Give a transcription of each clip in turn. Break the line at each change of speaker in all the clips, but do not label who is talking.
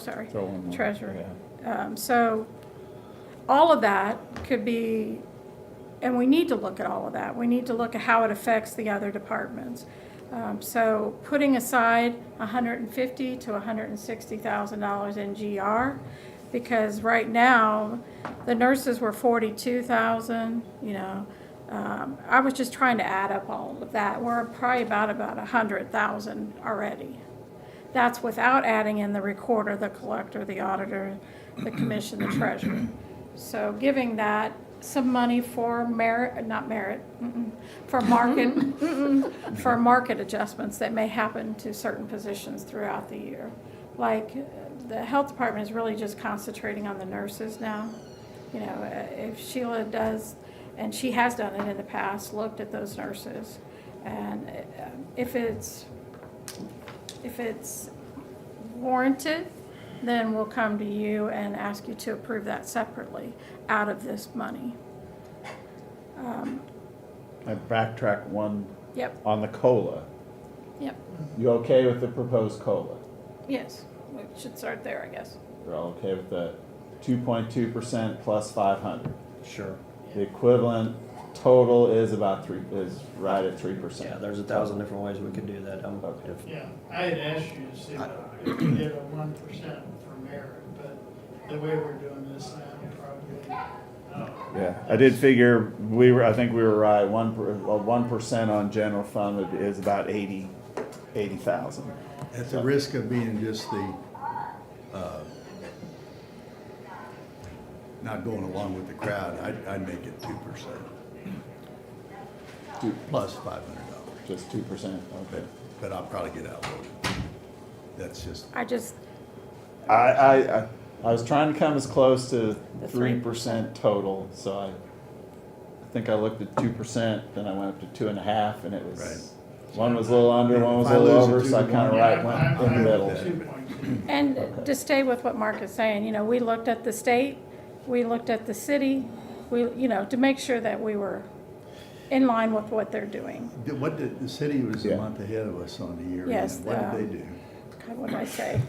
sorry,
Throw in one,
treasurer. Um, So all of that could be, and we need to look at all of that. We need to look at how it affects the other departments. Um, So putting aside $150,000 to $160,000 in GR, because right now, the nurses were 42,000, you know. Um, I was just trying to add up all of that. We're probably about, about 100,000 already. That's without adding in the recorder, the collector, the auditor, the commission, the treasurer. So giving that some money for merit, not merit, mm-mm, for market, mm-mm, for market adjustments that may happen to certain positions throughout the year. Like, uh, the health department is really just concentrating on the nurses now. You know, uh, if Sheila does, and she has done it in the past, looked at those nurses. And uh, if it's, if it's warranted, then we'll come to you and ask you to approve that separately out of this money. Um,
I backtrack one
Yep,
on the COLA.
yep,
You okay with the proposed COLA?
yes, we should start there, I guess.
You're all okay with the two point two percent plus five hundred?
Sure.
The equivalent total is about three, is right at three
Yeah,
percent.
there's a thousand different ways we could do that. I'm,
Okay.
if-
Yeah, I had asked you to see if you could get a one percent for merit, but the way we're doing this now, probably, uh,
Yeah, I did figure, we were, I think we were right, one, per- uh, one percent on general fund would- is about eighty, eighty thousand.
At the risk of being just the, uh, not going along with the crowd, I'd, I'd make it two percent. Plus five hundred dollars,
Just two percent, okay.
but I'll probably get outvoted. That's just,
I just,
I, I, I, I was trying to come as close to
The
three
3%.
percent total, so I, I think I looked at two percent, then I went up to two and a half, and it was, one was a little under, one was
If I
a little
lose it
over,
two
so I
to
kinda
one,
right
yeah,
went
I'm-
in the
I'm
middle.
that.
2.2.
and to stay with what Mark is saying, you know, we looked at the state, we looked at the city, we, you know, to make sure that we were in line with what they're doing.
did- what did, the city was
Yeah.
a month ahead of us on the year. end.
Yes, uh,
What
the-
did they do?
God, what did I say?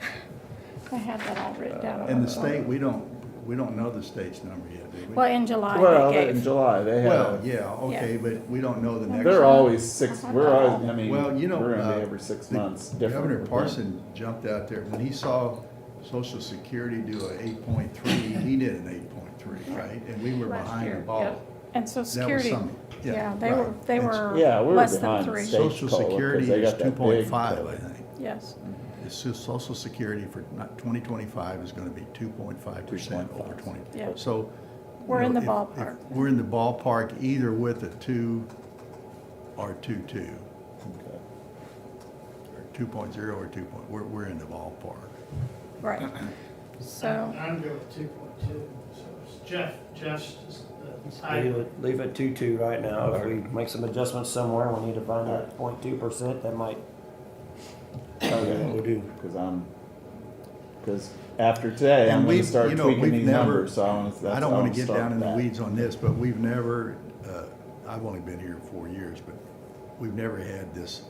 I had that all written down. on
And
uh,
the
my phone.
state, we don't, we don't know the state's number yet, do we?
Well, in July,
Well,
they
in
gave,
July, they had,
Well,
a-
yeah, okay, but we don't know the next.
they're always six, we're always, I mean,
Well, you know,
we're gonna be
uh,
every six
the
months different.
Governor
with them.
Parson jumped out there, when he saw Social Security do an eight point three, he did an eight point three, right? And we were
last
behind
year.
the
yep.
ball.
And so
That was
security,
something.
yeah, they were,
right.
they
And
were
Yeah, we were
less than
behind
three,
state.
Social
cola, 'cause
Security
they
is
got
two
that big
point five,
cola.
I think.
yes.
It's so- Social Security for not, twenty twenty-five is gonna be two point five percent over twenty.
Yeah.
So.
We're
you
in
know,
the
if- if
ballpark.
We're in the ballpark either with a two or two-two,
Okay.
or two point zero or two point, we're, we're in the ballpark.
Right. So,
I'm good with two point two, so it's Jeff, Jeff's just the
leave
title.
it, leave it two-two right now. If we make some adjustments somewhere, we need to find that point two percent, that might,
Okay.
we do.
Because I'm, because after today, I'm
And
gonna
we've,
start
you know,
tweaking
we've
these
never-
numbers, so I wanna, that's.
I don't
wanna
want to get
start
down in the
that.
weeds on this, but we've never, uh, I've only been here four years, but we've never had this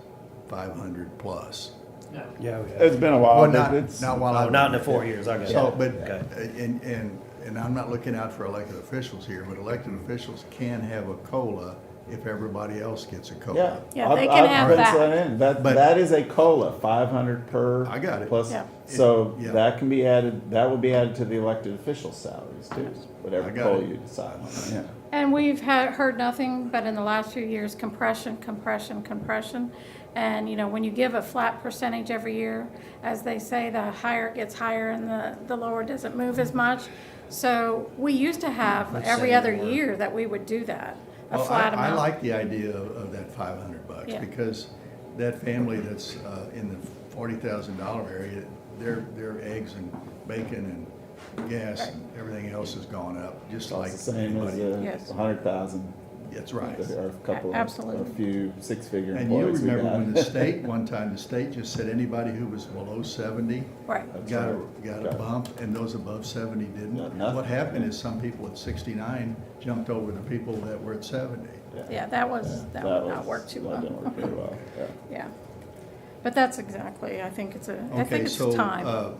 five hundred plus.
No,
Yeah, we
It's
have.
been a
Well,
while,
not,
but it's,
not while
Oh,
I've.
not in the
been
four
here.
years, I got it.
So, but, uh,
Okay.
and, and, and I'm not looking out for elected officials here, but elected officials can have a COLA if everybody else gets a
yeah.
COLA.
Yeah,
I've-
they can
I've
have
put
that.
in. That,
But-
that is a COLA, five hundred per.
I got it.
Plus,
Yeah.
so
Yeah.
that can be added, that will be added to the elected officials' salaries too, whatever
I got
COLA
it.
you decide on, yeah.
and we've had, heard nothing but in the last few years, compression, compression, compression. And, you know, when you give a flat percentage every year, as they say, the higher it gets higher and the, the lower doesn't move as much. So we used to have
Let's
every
say
other
more.
year that we would do that, a
Well, I-
flat
I
amount.
like the idea of, of that five hundred bucks,
Yeah.
because that family that's, uh, in the forty thousand dollar area, their, their eggs and bacon and gas and everything else has gone up, just like
It's the same as
anybody.
Yes.
a hundred thousand,
That's right.
or a couple, of- a
Absolutely.
few six-figure
And you
employees we
remember
got.
when the state, one time, the state just said anybody who was below seventy
Right,
That's
got a,
right.
got
Got
a
it.
bump, and those above seventy didn't.
Got nothing.
What happened is some people at sixty-nine jumped over the people that were at seventy.
yeah, that was, that would not
was-
work too
That
well.
didn't work very well, yeah.
Yeah, but that's exactly, I think it's a, I
Okay,
think it's
so,
time.
uh,